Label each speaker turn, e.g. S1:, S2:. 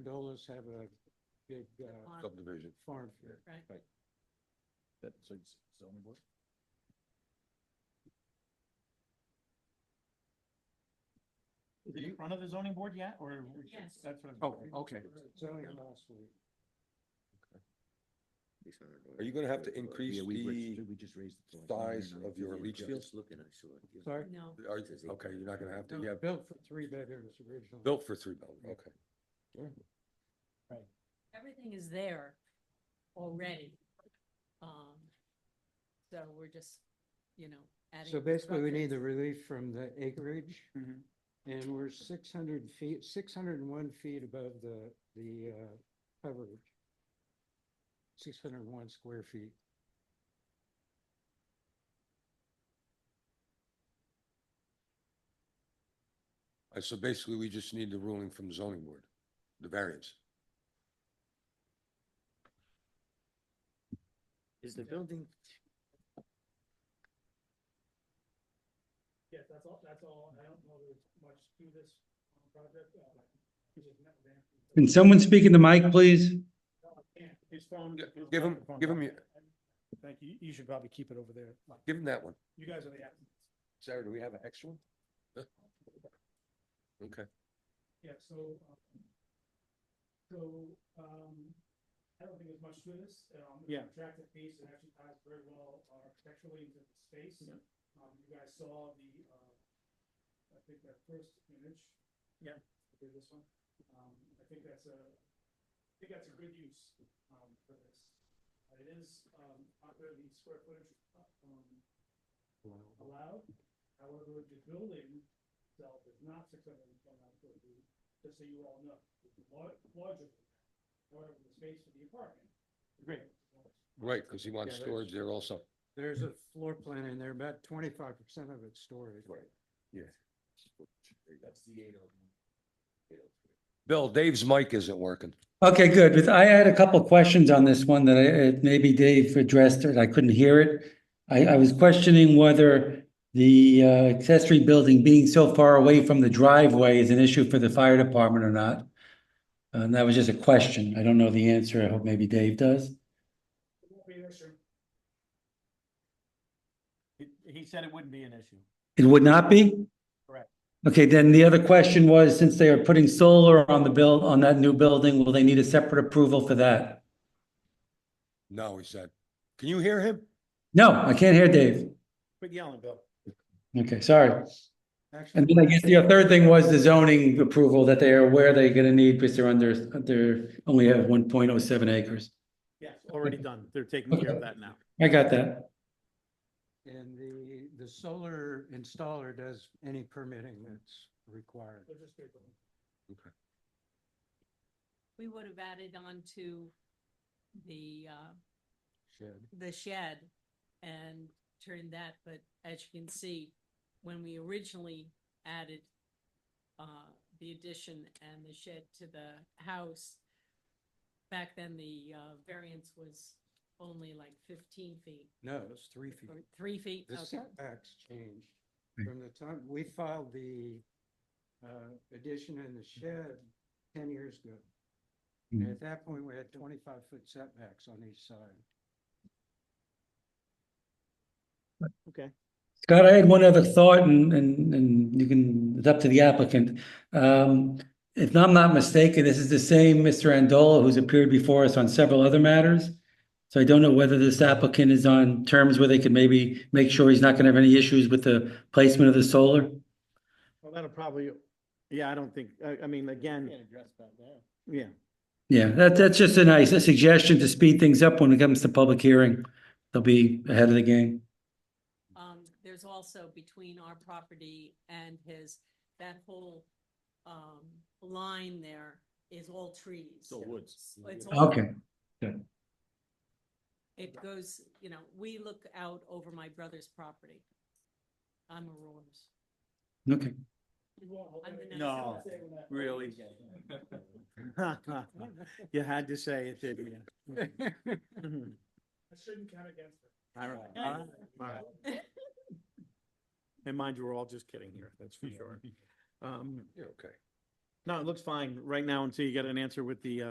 S1: us have a big uh,
S2: on-
S3: subdivision.
S1: farm fair.
S2: Right.
S3: That's zoning board?
S4: Is it in front of the zoning board yet, or? we should-
S2: Yes.
S4: That's what I'm.
S1: Oh, okay. It's only last week.
S3: Are you gonna have to increase
S5: Yeah, we raised-
S3: the,
S5: we just raised it to like
S3: size
S5: 99.
S3: of your
S5: Yeah,
S3: leach
S5: I
S3: field?
S5: was Looking, I saw it. yeah.
S1: Sorry?
S2: No,
S3: are you- okay, you're not gonna have to, you have
S1: Built for three bedrooms originally.
S3: built for three buildings, okay.
S2: everything is there already. Um, so we're just, you know, adding.
S1: So basically, we need the
S2: structures.
S1: relief from the acreage,
S4: Mhm.
S1: and we're six hundred feet, six hundred and one feet above the, the uh, coverage. Six hundred and one square feet.
S3: Uh, So basically, we just need the ruling from the zoning board, the variance.
S5: Is the building,
S6: Yeah, that's all, that's all. I don't know there's much to this um, project. uh, we just met with Anthony.
S7: Can someone speak in the mic, please?
S6: No, I can't. His phone.
S3: Gi-
S6: his
S3: give him-
S6: microphone's
S3: give him
S6: off.
S3: your-
S6: Thank you. You should probably keep it over there. Mike.
S3: Give them that one.
S6: You guys are the applicants.
S3: Sarah, do we have an extra one? Huh? Okay,
S6: Yeah, so, um, so, um, I don't think there's much to this. Um, the
S4: Yeah.
S6: Attractive piece, it actually ties very well uh, architecturally into the space.
S4: Yeah.
S6: Um, you guys saw the, uh, I think that first image.
S4: Yeah.
S6: Okay, this one. Um, I think that's a, I think that's a good use, um, for this. Uh, It is, um, under the square footage, uh, um, allowed. However, the building itself is not six hundred and twenty-nine square feet, just so you all know. It's lar- Larger than that, however, the space for the apartment. is
S1: Great.
S3: right, because he wants
S1: Yeah, there's-
S3: storage there also.
S1: There's a floor plan in there, about twenty-five percent of it's storage.
S3: Right.
S5: that's the eight oh one.
S3: Bill, Dave's mic isn't working.
S7: Okay, good. With- I had a couple of questions on this one that I, it- maybe Dave addressed it. I couldn't hear it. I, I was questioning whether the uh, accessory building being so far away from the driveway is an issue for the fire department or not. And that was just a question. I don't know the answer. I hope maybe Dave does.
S6: It won't be an issue.
S4: He- He said it wouldn't be an issue.
S7: It would not be?
S4: Correct.
S7: Okay, then the other question was, since they are putting solar on the build, on that new building, will they need a separate approval for that?
S3: No, he said. Can you hear him?
S7: No, I can't hear Dave.
S4: Quit yelling, Bill.
S7: Okay, sorry. And
S1: Actually,
S7: then I guess the third thing was the zoning approval that they are aware they're gonna need because they're under, they're only have one point oh seven acres.
S4: Yes, already done. They're taking care of that now.
S7: I got that.
S1: and the, the solar installer does any permitting that's required.
S6: They're just people.
S2: We would have added on to the, uh,
S1: Shed.
S2: the shed and turned that, but as you can see, when we originally added uh, the addition and the shed to the house, back then the uh, variance was only like fifteen feet
S1: No, it's three feet.
S2: or three feet.
S1: The
S2: Okay.
S1: setbacks changed
S7: Right.
S1: from the time we filed the uh, addition and the shed ten years ago. And
S7: Mhm.
S1: at that point, we had twenty-five foot setbacks on each side.
S7: Scott, I had one other thought and, and, and you can, it's up to the applicant. Um, if I'm not mistaken, this is the same Mr. Andola who's appeared before us on several other matters. So I don't know whether this applicant is on terms where they could maybe make sure he's not gonna have any issues with the placement of the solar.
S4: Well, that'll probably, yeah, I don't think, I, I mean, again. Can't address that now. Yeah.
S7: Yeah, that, that's just a nice a suggestion to speed things up when it comes to public hearing. They'll be ahead of the game.
S2: Um, there's also between our property and his, that whole, um, line there is all trees.
S5: It's all woods.
S2: It's all-
S7: Okay,
S2: It goes, you know, we look out over my brother's property. I'm a Roars.
S7: okay.
S6: We won't hold
S2: I'm the
S6: anything.
S2: next No,
S6: Say when that-
S4: really? You had to say it, didn't you? Mhm.
S6: I shouldn't count against her.
S4: All right, all right, all right. And mind you, we're all just kidding here, that's for sure. Um,
S3: Yeah, okay.
S4: No, it looks fine right now until you get an answer with the, uh,